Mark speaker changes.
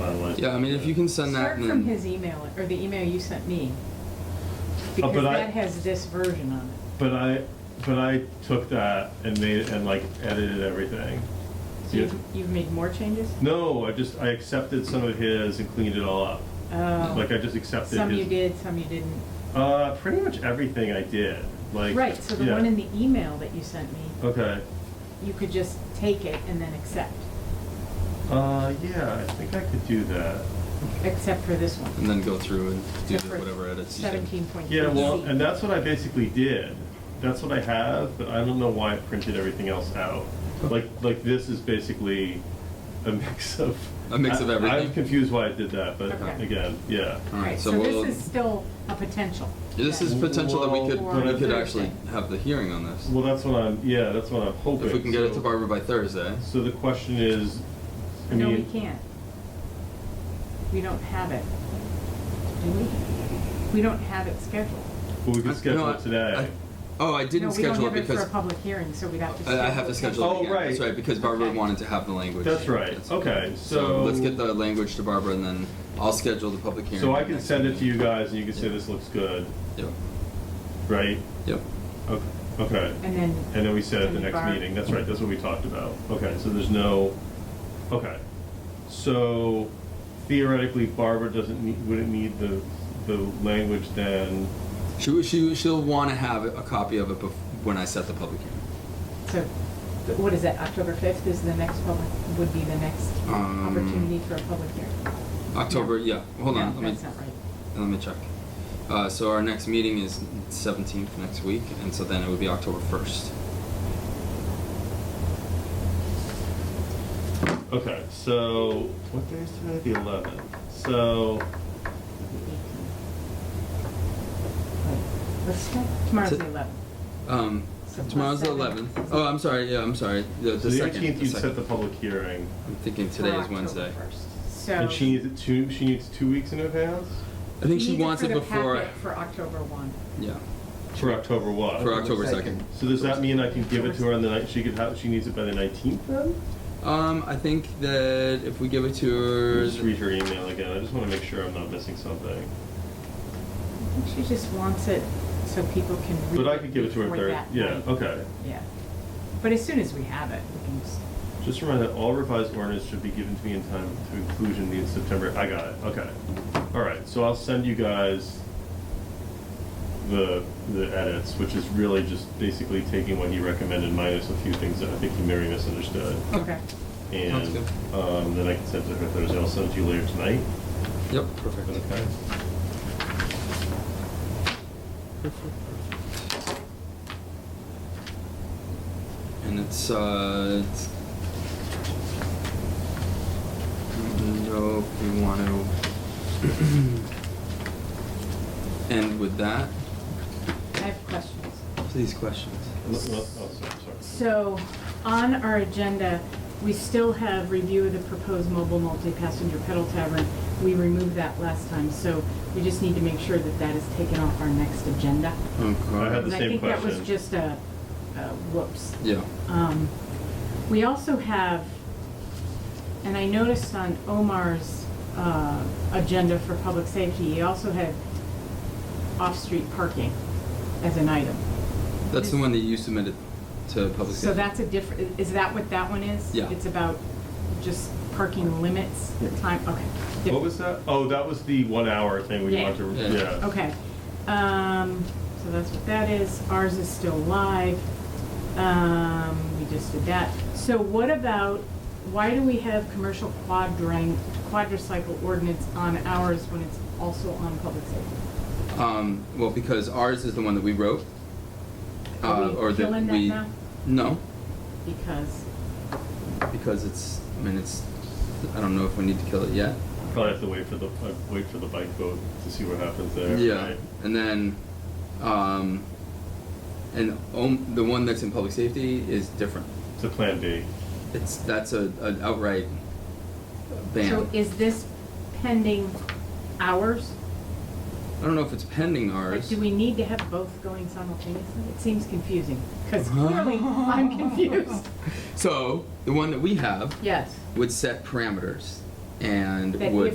Speaker 1: Yeah, I mean, if you can send that.
Speaker 2: Start
Speaker 1: and
Speaker 2: from
Speaker 1: then-
Speaker 2: his email, or the email you sent me. Because
Speaker 3: Oh, but I-
Speaker 2: that has this version on it.
Speaker 3: But I, but I took that and made, and like edited everything.
Speaker 2: So you've, you've made more changes?
Speaker 3: No, I just, I accepted some of his and cleaned it all up.
Speaker 2: Oh.
Speaker 3: Like I just accepted
Speaker 2: Some
Speaker 3: his.
Speaker 2: you did, some you didn't.
Speaker 3: Uh, pretty much everything I did, like.
Speaker 2: Right, so the
Speaker 3: yeah.
Speaker 2: one in the email that you sent me,
Speaker 3: Okay,
Speaker 2: you could just take it and then accept,
Speaker 3: uh, yeah, I think I could do that.
Speaker 2: except for this one.
Speaker 1: And then go through and do
Speaker 2: Except
Speaker 1: the
Speaker 2: for
Speaker 1: whatever edits you think.
Speaker 2: Seventeen point three.
Speaker 3: Yeah, well, and that's what I basically did. That's what I have, but I don't know why I printed everything else out. Like, like this is basically a mix of.
Speaker 1: A mix of
Speaker 3: I-
Speaker 1: everything.
Speaker 3: I'm confused why I did that, but
Speaker 2: Okay.
Speaker 3: again, yeah.
Speaker 1: All right,
Speaker 2: Right,
Speaker 1: so
Speaker 2: so
Speaker 1: we'll-
Speaker 2: this is still a potential.
Speaker 1: This is
Speaker 2: then.
Speaker 1: potential that we
Speaker 3: Well,
Speaker 1: could,
Speaker 2: Or
Speaker 1: we could
Speaker 2: Thursday.
Speaker 1: actually have the hearing on this.
Speaker 3: Well, that's what I'm. Yeah, that's what I'm hoping.
Speaker 1: If we can get it to
Speaker 3: So-
Speaker 1: Barbara by Thursday.
Speaker 3: So the question is, I
Speaker 2: No, we
Speaker 3: mean,
Speaker 2: can't. We don't have it. Do we? We don't have it scheduled.
Speaker 3: well, we
Speaker 1: I-
Speaker 3: can
Speaker 1: no,
Speaker 3: schedule
Speaker 1: I-
Speaker 3: it today.
Speaker 1: I- Oh, I didn't
Speaker 2: No, we don't
Speaker 1: schedule it
Speaker 2: have For
Speaker 1: because,
Speaker 2: a public hearing, so we'd have to.
Speaker 1: I I have to schedule
Speaker 3: Oh,
Speaker 1: it again. That's
Speaker 3: right.
Speaker 1: right, because Barbara
Speaker 2: Okay.
Speaker 1: wanted to have the language.
Speaker 3: That's right. Okay,
Speaker 1: So let's
Speaker 3: so-
Speaker 1: get the language to Barbara and then I'll schedule the public hearing.
Speaker 3: so I
Speaker 1: for
Speaker 3: can
Speaker 1: next
Speaker 3: send it
Speaker 1: week.
Speaker 3: to you guys, and you can say this looks good,
Speaker 1: Yep,
Speaker 3: right?
Speaker 1: yep.
Speaker 3: Okay. Okay.
Speaker 2: And then.
Speaker 3: And then we said at the
Speaker 2: And
Speaker 3: next
Speaker 2: Barb-
Speaker 3: meeting, that's right, that's what we talked about. Okay, so there's no, okay. So theoretically Barbara doesn't need, wouldn't need the, the language then,
Speaker 1: She, she, she'll want to have a copy of it bef- when I set the public hearing.
Speaker 2: So, th- what is that, October fifth is the next public, would be the next
Speaker 1: Um,
Speaker 2: opportunity for a public hearing?
Speaker 1: October, yeah, hold on,
Speaker 2: No,
Speaker 1: let me,
Speaker 2: that's not right.
Speaker 1: let me check. Uh, so our next meeting is seventeenth next week, and so then it would be October first.
Speaker 3: okay, so, what day is today? The eleventh. So,
Speaker 2: Right. Let's, start- tomorrow's
Speaker 1: So-
Speaker 2: the eleventh.
Speaker 1: Um,
Speaker 2: So
Speaker 1: tomorrow's the
Speaker 2: plus
Speaker 1: eleventh.
Speaker 2: seven.
Speaker 1: Oh, I'm sorry. Yeah, I'm sorry. The,
Speaker 3: so
Speaker 1: the
Speaker 3: the
Speaker 1: second.
Speaker 3: eighteenth
Speaker 1: the
Speaker 3: you set the
Speaker 1: second.
Speaker 3: public hearing.
Speaker 1: I'm thinking today is Wednesday.
Speaker 2: So.
Speaker 3: And she needs it two, she needs two weeks in advance?
Speaker 1: I think
Speaker 2: he
Speaker 1: she
Speaker 2: needs
Speaker 1: wants
Speaker 2: for
Speaker 1: it
Speaker 2: the
Speaker 1: before.
Speaker 2: packet For October one.
Speaker 1: Yeah,
Speaker 3: For October what?
Speaker 1: for October second.
Speaker 3: So does that mean I can give it to her on the night, she could have, she needs it by the nineteenth then?
Speaker 1: Um, I think that if we give it to
Speaker 3: Let
Speaker 1: her,
Speaker 3: me Just read her email again, I just wanna make sure I'm not missing something.
Speaker 2: I think she just wants it so people can read it.
Speaker 3: But I could give it to her
Speaker 2: before
Speaker 3: third,
Speaker 2: that
Speaker 3: yeah,
Speaker 2: night.
Speaker 3: okay.
Speaker 2: Yeah. But as soon as we have it, we can just,
Speaker 3: Just a reminder, that all revised ordinance should be given to me in time to inclusion in September, I got it, okay. All right, so I'll send you guys the, the edits, which is really just basically taking what he recommended minus a few things that I think he maybe misunderstood.
Speaker 2: okay.
Speaker 1: Sounds
Speaker 3: And,
Speaker 1: good.
Speaker 3: um, then I can send it to her Thursday, I'll send it to you later tonight,
Speaker 1: Yep, perfect.
Speaker 3: okay?
Speaker 1: And it's uh. It's, I don't know if we want to end with that.
Speaker 2: I have questions.
Speaker 1: Please, questions.
Speaker 3: Oh, sorry, sorry.
Speaker 2: So, on our agenda, we still have review of the proposed mobile multi-passenger pedal tavern. We removed that last time, so we just need to make sure that that is taken off our next agenda.
Speaker 3: I had
Speaker 1: Okay.
Speaker 3: the
Speaker 2: And I
Speaker 3: same
Speaker 2: think that was
Speaker 3: question.
Speaker 2: just a, a whoops.
Speaker 1: Yeah.
Speaker 2: Um, We also have, and I noticed on Omar's uh, agenda for public safety, he also had off-street parking as an item.
Speaker 1: That's the one that you submitted to public.
Speaker 2: So
Speaker 1: safety.
Speaker 2: that's a different, is that what that one is?
Speaker 1: Yeah.
Speaker 2: It's about just parking limits, the time, okay. diff-
Speaker 3: What was that? Oh, that was the one hour thing we
Speaker 2: Yeah.
Speaker 3: wanted to,
Speaker 1: Yeah.
Speaker 3: yeah.
Speaker 2: Okay, um, so that's what that is, ours is still live, um, we just did that. So what about, why do we have commercial quadrang, quadricycle ordinance on ours when it's also on public safety?
Speaker 1: Um, well, because ours is the one that we wrote.
Speaker 2: Are we
Speaker 1: uh, or that
Speaker 2: killing that
Speaker 1: we-
Speaker 2: now?
Speaker 1: No,
Speaker 2: Because,
Speaker 1: because it's, I mean, it's, I don't know if we need to kill it yet.
Speaker 3: Probably have to wait for the, uh, wait for the bike vote to see what happens there.
Speaker 1: Yeah,
Speaker 3: right?
Speaker 1: and then, um, and om- the one that's in public safety is different.
Speaker 3: It's a plan B.
Speaker 1: It's, that's a, an outright ban.
Speaker 2: so is this pending ours?
Speaker 1: I don't know if it's pending
Speaker 2: Like,
Speaker 1: ours.
Speaker 2: do we need to have both going simultaneously? It seems confusing, because clearly I'm confused.
Speaker 1: So, the one that we have
Speaker 2: Yes.
Speaker 1: would set parameters and
Speaker 2: That
Speaker 1: would